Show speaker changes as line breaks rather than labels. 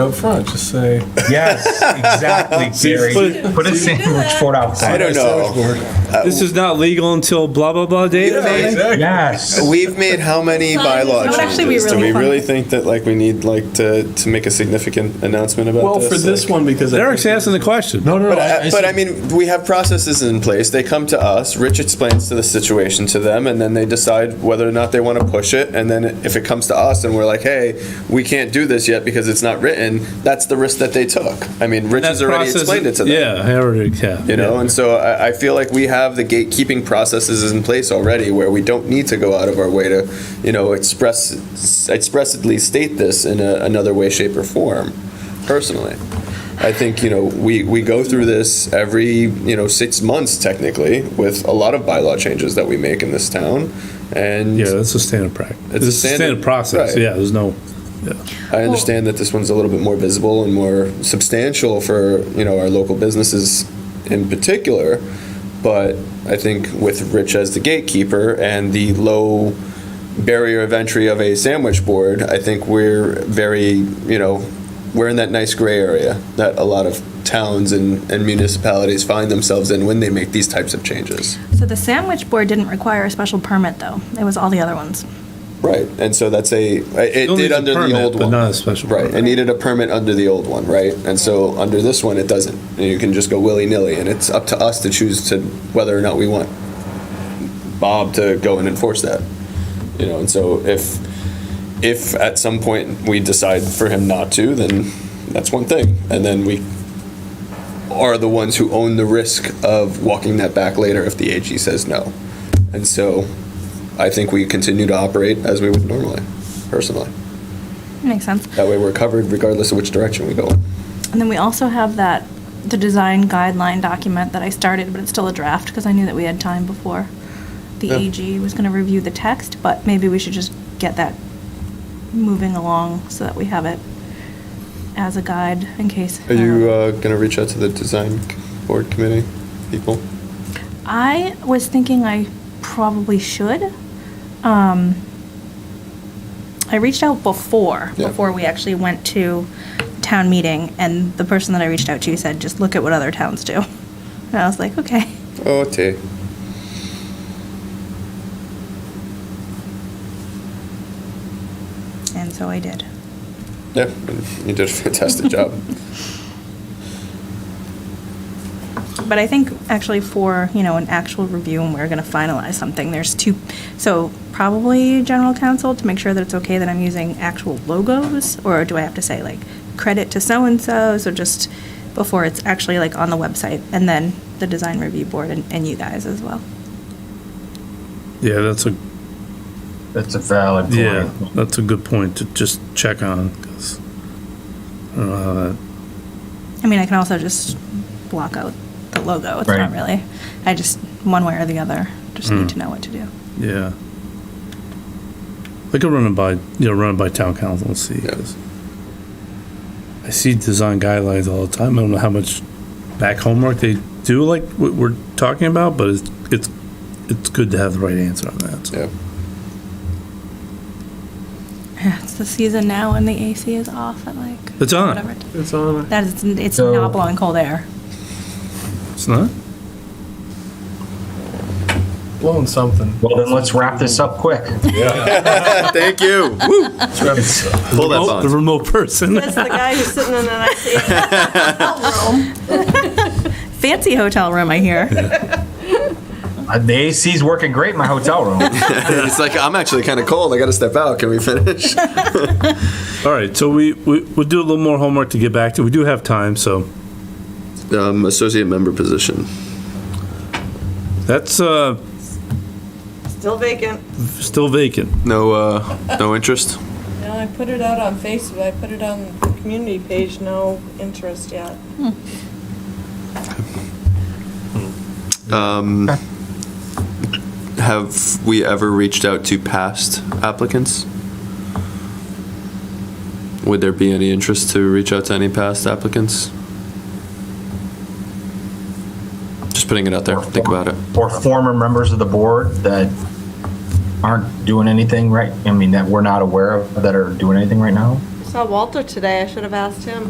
Up front, just say.
Yes, exactly, Gary. Put a sandwich board
I
outside.
don't know.
This is not legal until blah, blah, blah date.
Yes.
We've made how many bylaw
That would actually be
changes? Do
really
we
fun.
really think that like we need like to, to make a significant announcement about
Well,
this?
for this
Like-
one, because. I
Eric's
think-
asking the question.
No, no, no.
But I, but I mean, we have processes in place. They come to us. Rich explains to the situation to them, and then they decide whether or not they want to push it. And then if it comes to us, and we're like, "Hey, we can't do this yet because it's not written," that's the risk that they took. I mean, Rich has
That
already
process-
explained it to them.
Yeah, I already, yeah.
You know, and so I, I feel like we have the gatekeeping processes in place already, where we don't need to go out of our way to, you know, express expressly state this in a, another way, shape, or form. Personally, I think you know we we go through this every you know six months technically with a lot of bylaw changes that we make in this town, and
Yeah, that's a standard practice.
It's a
It's a standard
standard-
process,
right.
yeah, there's no,
I understand that this one's a little bit more visible and more substantial for, you know, our local businesses in particular. But I think with Rich as the gatekeeper and the low barrier of entry of a sandwich board, I think we're very, you know, we're in that nice gray area that a lot of towns and, and municipalities find themselves in when they make these types of changes.
So the sandwich board didn't require a special permit, though. It was all the other ones.
Right. And so that's a, it
Still
did
needs a
under the
permit,
old
but
one.
not a special
Right,
permit.
it needed a permit under the old one, right? And so under this one, it doesn't. And You can just go willy-nilly, and it's up to us to choose to, whether or not we want Bob to go and enforce that. You know, and so if, if at some point we decide for him not to, then that's one thing. And then we are the ones who own the risk of walking that back later if the AG says no. And so I think we continue to operate as we would normally, personally.
Makes sense.
That way we're covered regardless of which direction we go.
And then we also have that, the design guideline document that I started, but it's still a draft because I knew that we had time before the
Yeah.
AG was going to review the text, but maybe we should just get that moving along so that we have it as a guide in case.
Are you uh, going to reach out to the design board committee people?
I was thinking I probably should. Um, I reached out before,
Yeah.
before we actually went to town meeting, and the person that I reached out to said, just look at what other towns do. And I was like, okay.
Oh, T.
And so I did.
Yeah, you did a fantastic job.
But I think actually for, you know, an actual review and we're going to finalize something, there's two, so probably general counsel to make sure that it's okay that I'm using actual logos, or do I have to say like credit to so-and-so, so just before it's actually like on the website, and then the design review board and, and you guys as well.
yeah, that's a,
That's a valid point.
yeah, that's a good point to just check on, 'cause uh, I don't know how that-
I mean, I can also just block out the logo, it's not
Right.
really, I just, one way or the other, just need to know what to do.
yeah. I could run it by, you know, run it by town council and see,
Yeah.
'cause I see design guidelines all the time, I don't know how much back homework they do like what we're talking about, but it's, it's, it's good to have the right answer on that, so.
Yeah.
It's the season now and the AC is off at like.
It's on.
whatever.
It's on.
That is, it's
So-
not blowing cold air.
It's not?
Blowing something.
Well, then let's wrap this up quick.
Thank you. Pull that
Oh, the
bond.
remote person.
That's the guy who's sitting in an IC.
Fancy hotel room, I hear.
Uh, The AC's working great in my hotel room.
It's like, I'm actually kind of cold. I got to step out. Can we finish?
All right, so we, we, we'll do a little more homework to get back to. We do have time, so
Um, associate member position.
that's, uh,
Still vacant.
still vacant.
No, uh, no interest?
No, I put it out on Facebook. I put it on the community page. No interest yet.
Have we ever reached out to past applicants? Would there be any interest to reach out to any past applicants? Just putting it out there. Think about it.
Or former members of the board that aren't doing anything right, I mean, that we're not aware of, that are doing anything right now?
Saw Walter today, I should have asked him.